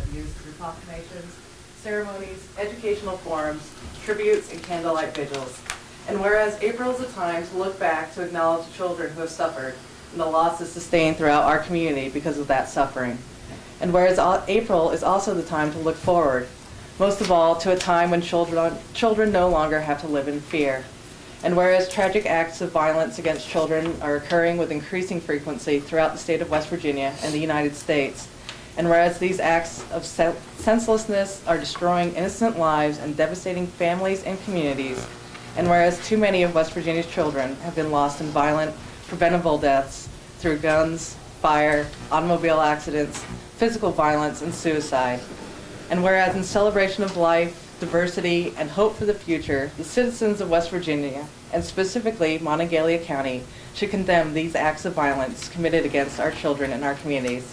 resolutions through proclamations, ceremonies, educational forums, tributes, and candlelight vigils. And whereas April is a time to look back to acknowledge the children who have suffered and the losses sustained throughout our community because of that suffering. And whereas au- April is also the time to look forward, most of all to a time when children, children no longer have to live in fear. And whereas tragic acts of violence against children are occurring with increasing frequency throughout the state of West Virginia and the United States, and whereas these acts of sen- senselessness are destroying innocent lives and devastating families and communities, and whereas too many of West Virginia's children have been lost in violent, preventable deaths through guns, fire, automobile accidents, physical violence, and suicide. And whereas in celebration of life, diversity, and hope for the future, the citizens of West Virginia, and specifically Monongalia County, should condemn these acts of violence committed against our children and our communities.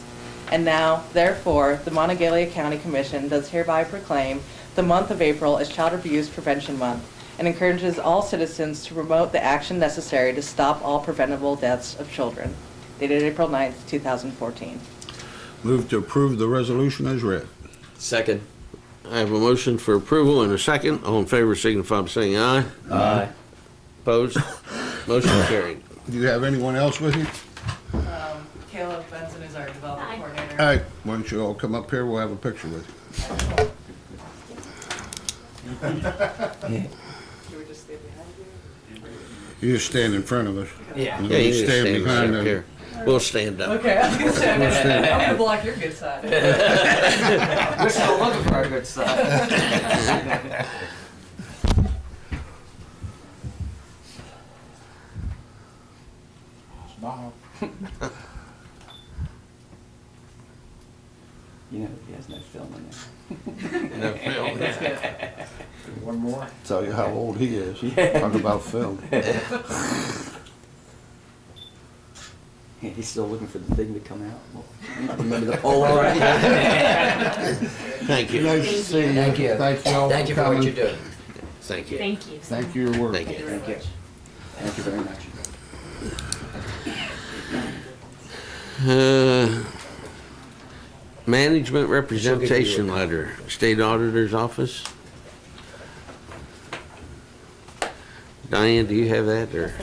And now, therefore, the Monongalia County Commission does hereby proclaim the month of April as Child Abuse Prevention Month and encourages all citizens to promote the action necessary to stop all preventable deaths of children. Dated April 9th, 2014. Move to approve the resolution as read. Second. I have a motion for approval and a second. All in favor signify by saying aye. Aye. Opposed? Motion carried. Do you have anyone else with you? Caleb Benson is our development coordinator. All right, why don't you all come up here, we'll have a picture with you. Should we just stay behind you? You just stand in front of us. Yeah. And Yeah, you we can stand behind up them. here. We'll stand up. Okay, I was gonna say, I'm gonna- I'm gonna block your good side. We're still looking for our good stuff. You know, he has no film in there. One more? Tell you how old he is. Talk about film. Yeah, he's still looking for the thing to come out. Well, Remember the Oh, Polaroid? Thank you. Nice to see you. Thank you. Thank you all for coming. Thank you for what you're doing. Thank you. Thank you. Thank you for your work. Thank you. Thank you. Thank you very much. Uh, Management representation letter, State Auditor's Office. Diane, do you have that or?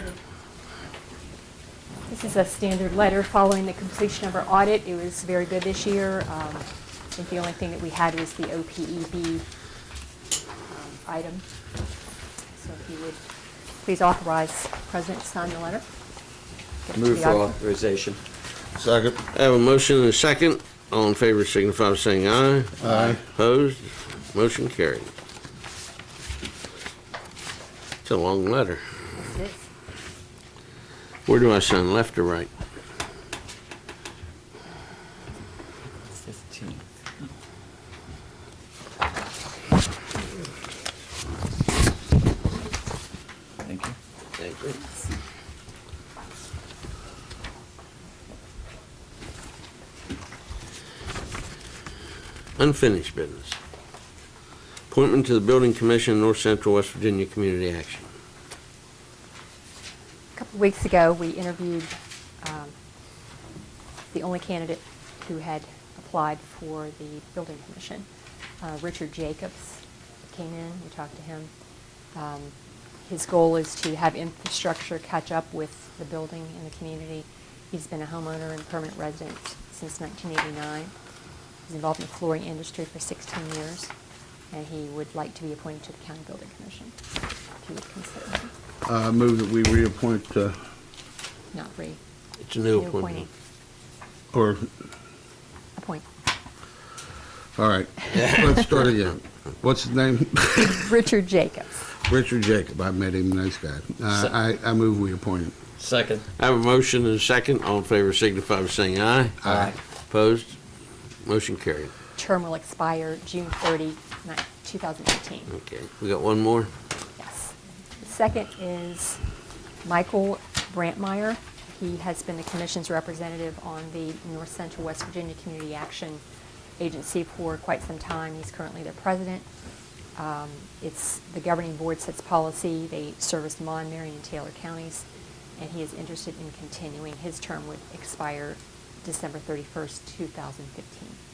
This is a standard letter following the completion of our audit. It was very good this year. Um, I think the only thing that we had was the OPEB um, item. So if you would please authorize the President to sign the letter. Give it to Move the for auditor. authorization. Second. I have a motion and a second. All in favor signify by saying aye. Aye. Opposed? Motion carried. It's a long letter. Yes, it is. Where do I sign, left or right? Fifteen. Thank you. Thank you. Unfinished business. Appointment to the Building Commission, North Central West Virginia Community Action. A couple weeks ago, we interviewed um, the only candidate who had applied for the building commission, uh, Richard Jacobs came in, we talked to him. Um, His goal is to have infrastructure catch up with the building and the community. He's been a homeowner and permanent resident since 1989. He's involved in the flooring industry for 16 years, and he would like to be appointed to the county building commission, if you would consider him, Uh, move that we reappoint, uh, not re, It's a new New appointment. appointee. or, appoint. all right, let's start again. What's his name? Richard Jacobs. Richard Jacob. I met him, nice guy. Uh, I, I move we appoint him. Second. I have a motion and a second. All in favor signify by saying aye. Aye. Opposed? Motion carried. Term will expire June 30, ni- 2018. Okay, we got one more? Yes. The Second is Michael Brantmeyer. He has been the commission's representative on the North Central West Virginia Community Action Agency for quite some time. He's currently their president. Um, It's, the governing board sets policy. They service Mon, Marion, and Taylor counties, and he is interested in continuing. His term would expire December 31st, 2015. Uh,